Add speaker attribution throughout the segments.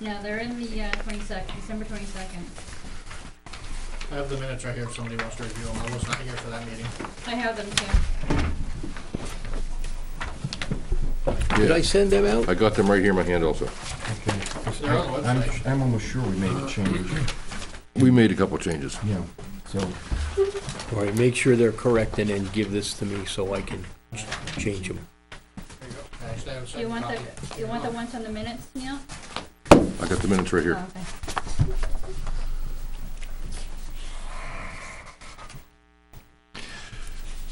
Speaker 1: Yeah, they're in the uh, 22nd, December 22nd.
Speaker 2: I have the minutes right here if somebody wants to review them. I was not here for that meeting.
Speaker 1: I have them too.
Speaker 3: Did I
Speaker 4: Yeah,
Speaker 3: send them out?
Speaker 4: I got them right here in my hand also.
Speaker 5: Okay, 'cause
Speaker 2: They're on the
Speaker 5: I'm-
Speaker 2: website.
Speaker 5: I'm almost sure we made a change,
Speaker 4: We made a couple changes.
Speaker 5: yeah, so,
Speaker 3: All right, make sure they're correct and then give this to me so I can change them.
Speaker 2: There you go. I actually have a
Speaker 1: Do you
Speaker 2: second
Speaker 1: want
Speaker 2: copy.
Speaker 1: the, you want the ones on the minutes, Neil?
Speaker 4: I got the minutes right
Speaker 1: Oh,
Speaker 4: here.
Speaker 1: okay.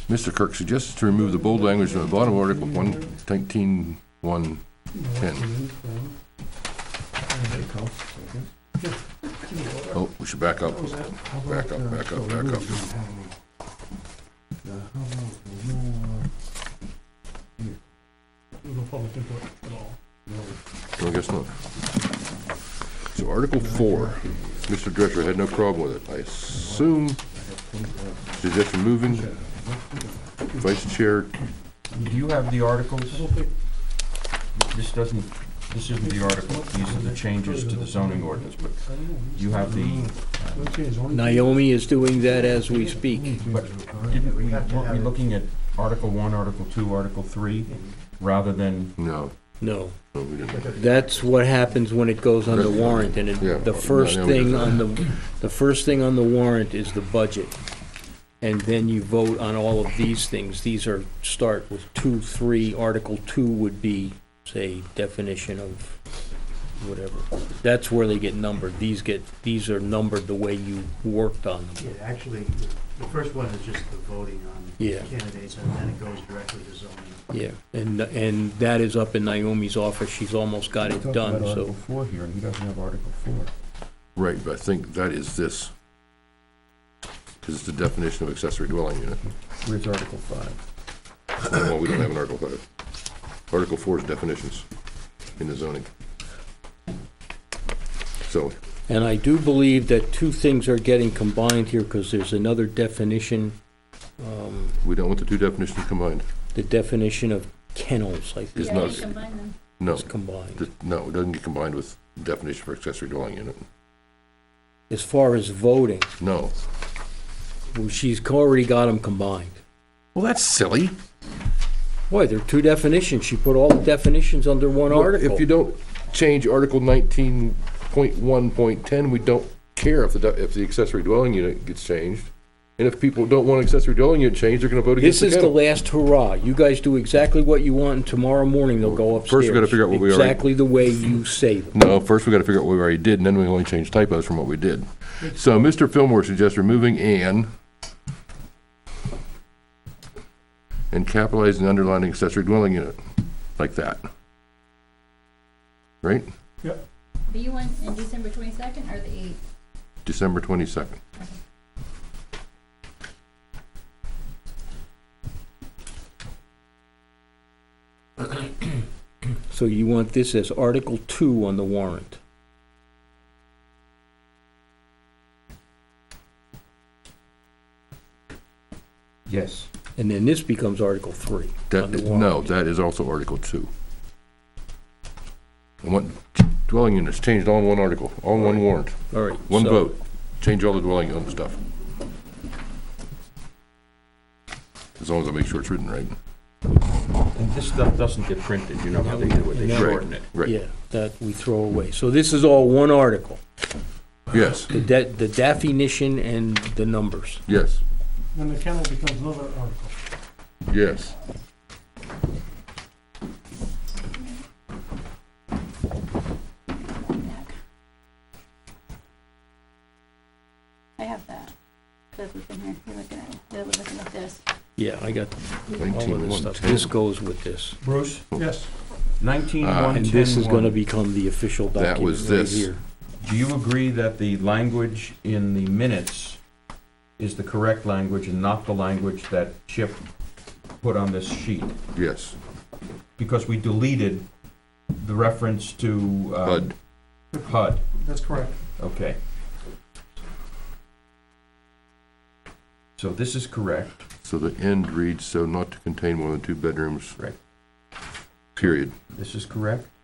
Speaker 4: Mr. Kirk suggests to remove the bold language from the bottom of Article 1, 19, 1, 10.
Speaker 5: there you go.
Speaker 4: Oh, we should back up. Back up, back up, back up.
Speaker 6: no public input at all.
Speaker 4: No, I guess not. So Article 4, Mr. Drescher had no problem with it. I assume, suggests removing Vice Chair,
Speaker 5: Do you have the articles? This doesn't, this isn't the article, these are the changes to the zoning ordinance, but you have the,
Speaker 3: Naomi is doing that as we speak.
Speaker 5: but didn't we, weren't we looking at Article one, Article two, Article three, rather than,
Speaker 4: no,
Speaker 3: No,
Speaker 4: no, we didn't.
Speaker 3: that's what happens when it goes on the warrant, and
Speaker 4: Yeah.
Speaker 3: it- the first thing on the, the first thing on the warrant is the budget. And then you vote on all of these things. These are, start with two, three, Article two would be, say, definition of whatever. That's where they get numbered. These get, these are numbered the way you worked on them.
Speaker 7: Yeah, actually, the first one is just the voting on
Speaker 3: Yeah.
Speaker 7: candidates, and then it goes directly to zoning.
Speaker 3: Yeah, and, and that is up in Naomi's office, she's almost got
Speaker 5: we
Speaker 3: it
Speaker 5: talked
Speaker 3: done,
Speaker 5: about
Speaker 3: so.
Speaker 5: Article four here, and he doesn't have Article four.
Speaker 4: Right, but I think that is this. Because it's the definition of accessory dwelling unit.
Speaker 5: Where's Article five?
Speaker 4: Well, we don't have an Article 5. Article 4 is definitions in the zoning. So,
Speaker 3: And I do believe that two things are getting combined here, because there's another definition, um,
Speaker 4: we don't want the two definitions combined.
Speaker 3: the definition of kennels, I think,
Speaker 4: It's
Speaker 1: Yeah,
Speaker 4: not-
Speaker 1: you combine them.
Speaker 4: No,
Speaker 3: is combined.
Speaker 4: th- no, it doesn't get combined with definition for accessory dwelling unit.
Speaker 3: As far as voting,
Speaker 4: No.
Speaker 3: well, she's already got them combined.
Speaker 4: Well, that's silly.
Speaker 3: Boy, there are two definitions, she put all the definitions under one article.
Speaker 4: If you don't change Article 19.1.10, we don't care if the, de- if the accessory dwelling unit gets changed. And if people don't want accessory dwelling unit changed, they're going to vote against
Speaker 3: This
Speaker 4: the
Speaker 3: is the
Speaker 4: kennel.
Speaker 3: last hurrah. You guys do exactly what you want, and tomorrow morning they'll go upstairs.
Speaker 4: First, we gotta figure out what we already-
Speaker 3: Exactly the way you say them.
Speaker 4: No, first we gotta figure out what we already did, and then we only change typos from what we did. So Mr. Fillmore suggests removing "and" and capitalizing and underlining accessory dwelling unit, like that. Right?
Speaker 1: But you want in December 22nd or the 8th?
Speaker 4: December twenty-second.
Speaker 3: So you want this as Article Two on the warrant?
Speaker 5: Yes.
Speaker 3: And then this becomes Article Three on
Speaker 4: That,
Speaker 3: the
Speaker 4: is-
Speaker 3: warrant?
Speaker 4: no, that is also Article Two. I want dwelling units changed all in one article, all in one warrant,
Speaker 3: All right.
Speaker 4: one
Speaker 3: so-
Speaker 4: vote, change all the dwelling unit stuff. As long as I make sure it's written right.
Speaker 5: And this stuff doesn't get printed, you know how they do it, they
Speaker 3: No.
Speaker 5: shorten it.
Speaker 4: Right.
Speaker 3: Yeah, that we throw away. So this is all one article,
Speaker 4: Yes,
Speaker 3: the de- the definition and the numbers.
Speaker 4: yes,
Speaker 6: Then the kennel becomes another article.
Speaker 4: yes.
Speaker 1: I have that. That's what's in here. You're looking at, they're looking at this.
Speaker 3: Yeah, I got all of
Speaker 4: Nineteen
Speaker 3: this
Speaker 4: one
Speaker 3: stuff. This
Speaker 4: ten.
Speaker 3: goes with this.
Speaker 5: Bruce,
Speaker 6: Yes,
Speaker 5: nineteen
Speaker 4: Ah.
Speaker 5: one ten one.
Speaker 3: Uh, And this is gonna become the official
Speaker 4: That
Speaker 3: document
Speaker 4: was
Speaker 3: right
Speaker 4: this.
Speaker 3: here.
Speaker 5: Do you agree that the language in the minutes is the correct language and not the language that Chip put on this sheet?
Speaker 4: Yes,
Speaker 5: Because we deleted the reference to
Speaker 3: Um,
Speaker 5: uh,
Speaker 4: HUD,
Speaker 5: HUD,
Speaker 6: that's correct.
Speaker 5: okay. So this is correct,
Speaker 4: so the end reads, so not to contain more than two bedrooms.
Speaker 5: Right.
Speaker 4: Period.
Speaker 5: this is correct,